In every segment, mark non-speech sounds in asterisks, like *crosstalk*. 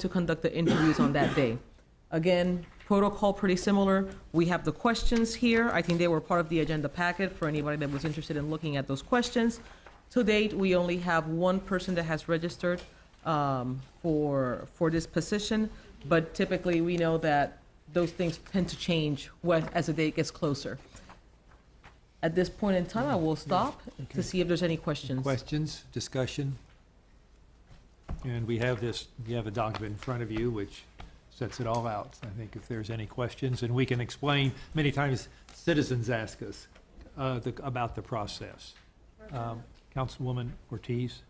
to conduct the interviews on that day. Again, protocol pretty similar. We have the questions here. I think they were part of the agenda packet for anybody that was interested in looking at those questions. To date, we only have one person that has registered um, for, for this position, but typically, we know that those things tend to change when- as the date gets closer. At this point in time, I will stop to see if there's any questions. Questions, discussion? And we have this, you have a document in front of you which sets it all out. I think if there's any questions, and we can explain, many times citizens ask us uh, the- about the process. Um, Councilwoman Ortiz?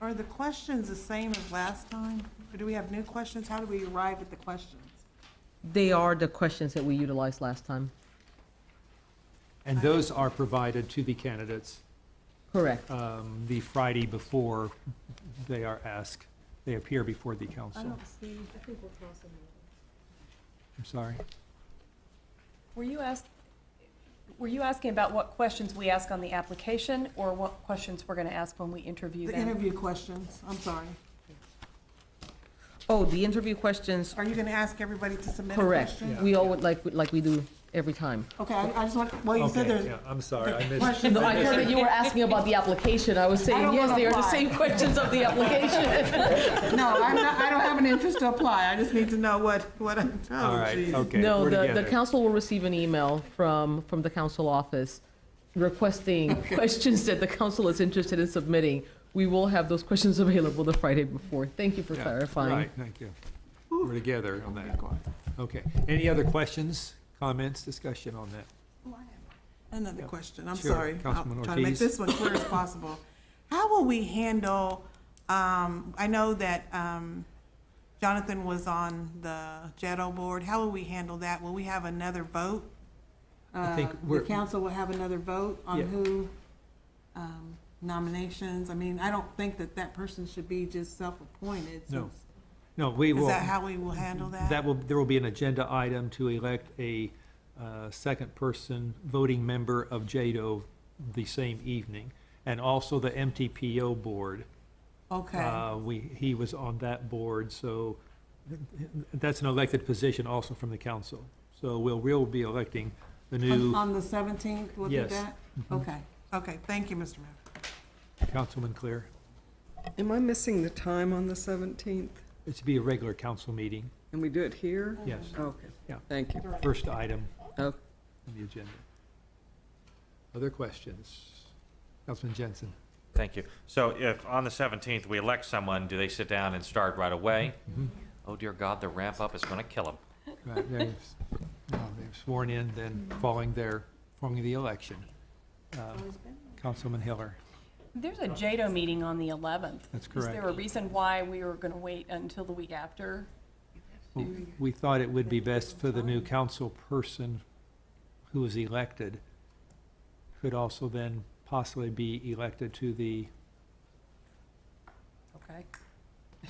Are the questions the same as last time? Or do we have new questions? How do we arrive at the questions? They are the questions that we utilized last time. And those are provided to the candidates Correct. um, the Friday before they are asked, they appear before the I council. don't see, I'm sorry. Were you asked, were you asking about what questions we ask on the application or what questions we're going to ask when we interview the them? interview questions, I'm sorry. Oh, the interview questions, Are you gonna ask everybody to submit a correct. question? We all would, like, like we do every time. Okay, I I just want, well, Oh, you said Okay, there's yeah, I'm sorry, I missed. questions. No, I heard that you were asking about the application. I was saying, don't yes, wanna they are the apply. same questions of the *laughs* application. No, I'm not, I don't have an interest to apply. I just need to know what, what I'm, All oh, right, geez. okay. No, we're the, the together. council will receive an email from, from the council office *laughs* requesting questions that the council is interested in submitting. We will have those questions *laughs* available the Friday before. Thank you for Yeah, clarifying. Right, thank you. We're together on that. Okay. Any other questions, comments, discussion on that? Another question, I'm Sure, sorry. I'll Councilman try to make Ortiz. this one clear as possible. How will we handle, um, I know that, um, Jonathan was on the JETO board. How will we handle that? Will we have another vote? I think Uh, The we're- council will have another vote on Yeah. who, um, nominations? I mean, I don't think that that person should be just self-appointed. No, since- No, we will. Is that how we will handle that? That will, there will be an agenda item to elect a uh, second person voting member of JADO the same evening, and also the MTPO board. Okay, Uh, We, he was on that board, so that's an elected position also from the council. So we'll, we'll be electing the on new on the seventeenth, we'll do Yes. Mm-hmm. that? Okay, okay, thank you, Mr. Mayor. councilman clear. Am I missing the time on the 17th? It's to be a regular council meeting, And we do it here? yes. Okay. Yeah. Thank you. First item on Oh. the agenda. Other questions? Councilman Jensen? Thank you. So if on the 17th we elect someone, do they sit down and start right away? Mhm. Oh dear God, the ramp up is going to kill them. Right, they've no, they've sworn in, then following their, following the election. Um, Councilman Hiller, There's a JADO meeting on the 11th. that's Is there a correct. reason why we were going to wait until the week after? W- We thought it would be best for the new council person who was elected, could also then possibly be elected to the, Okay.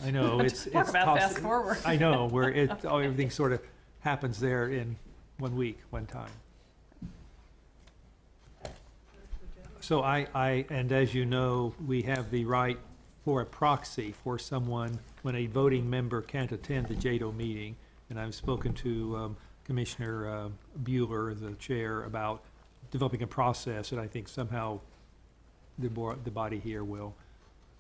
I know, Oh, it's. *laughs* Talk it's about fast possi- forward. I know, where it, oh, everything sort of happens there in one week, one time. So I, I, and as you know, we have the right for a proxy for someone when a voting member can't attend the JADO meeting. And I've spoken to um, Commissioner uh, Bueller, the chair, about developing a process, and I think somehow the board, the body here will,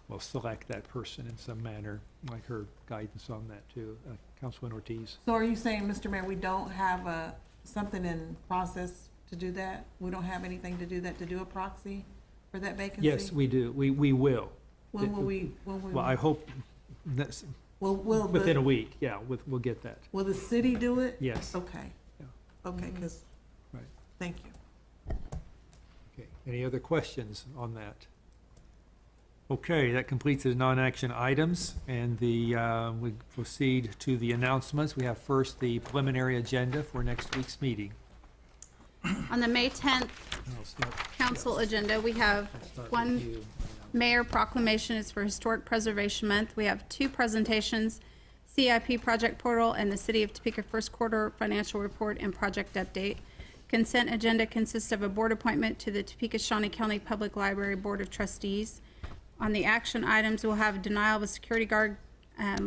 will select that person in some manner, like her guidance on that too. Uh, Councilman Ortiz? So are you saying, Mr. Mayor, we don't have a, something in process to do that? We don't have anything to do that, to do a proxy for that vacancy? Yes, we do. We, we will. When will we, when will, Well, I hope that's will, will within a the, week, yeah, with, we'll get that, will the city do it? yes. Okay. Yeah. Okay, because, Right. thank you. Okay, any other questions on that? Okay, that completes the non-action items, and the, uh, we proceed to the announcements. We have first the preliminary agenda for next week's meeting. On the May 10th I'll start- council agenda, we have I'll start with one you. mayor proclamation is for Historic Preservation Month. We have two presentations, CIP Project Portal and the City of Topeka First Quarter Financial Report and Project Update. Consent agenda consists of a board appointment to the Topeka Shawnee County Public Library Board of Trustees. On the action items, we'll have denial of a security guard um,